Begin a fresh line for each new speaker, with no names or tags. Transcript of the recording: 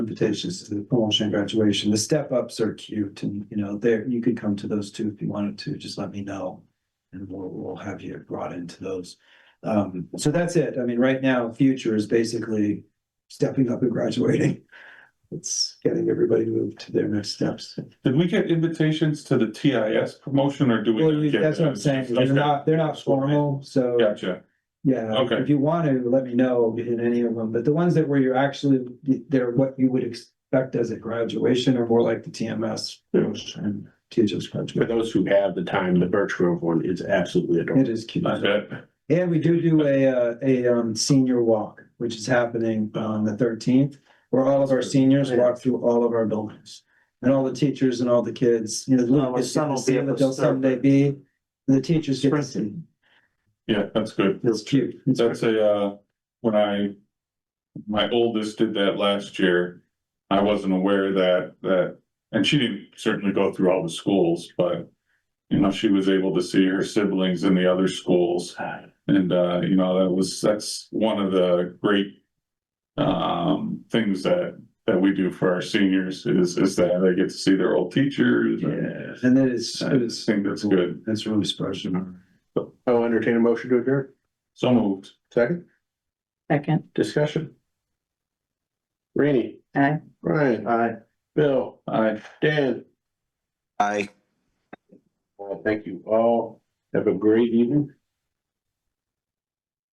invitations to the promotion and graduation. The step ups are cute and, you know, there, you could come to those too if you wanted to, just let me know. And we'll, we'll have you brought into those. Um, so that's it. I mean, right now, future is basically stepping up and graduating. It's getting everybody moved to their next steps.
Did we get invitations to the TIS promotion or do we?
Well,
not
you-
get
that's what I'm
those?
saying. They're
Okay.
not, they're not formal, so.
Gotcha.
Yeah.
Okay.
If you want to, let me know in any of them, but the ones that where you're actually, they're what you would expect as a graduation or more like the TMS. And THS
For
graduate.
those who have the time, the Birch Grove one is absolutely
It
adorable.
is cute.
I bet.
And we do do a, uh, a, um, senior walk, which is happening on the thirteenth, where all of our seniors walk through all of our buildings. And all the teachers and all the kids, you know, the
No,
little
my
kids
son
get to
will be
see
able
what
to
they'll
start
someday be. The teachers get to see.
Yeah, that's good.
It's cute. It's
That's a, uh, when I, my oldest did that last year. I wasn't aware that, that, and she didn't certainly go through all the schools, but you know, she was able to see her siblings in the other schools. And, uh, you know, that was, that's one of the great um, things that, that we do for our seniors is, is that they get to see their old teachers. and-
Yeah, and it is,
I
it is.
just think that's good.
That's really special.
I'll entertain a motion to adjourn.
So moved.
Second,
Second,
discussion. Rainey.
Aye.
Brian.
Aye.
Bill.
Aye.
Dan.
Aye.
Well, thank you all. Have a great evening.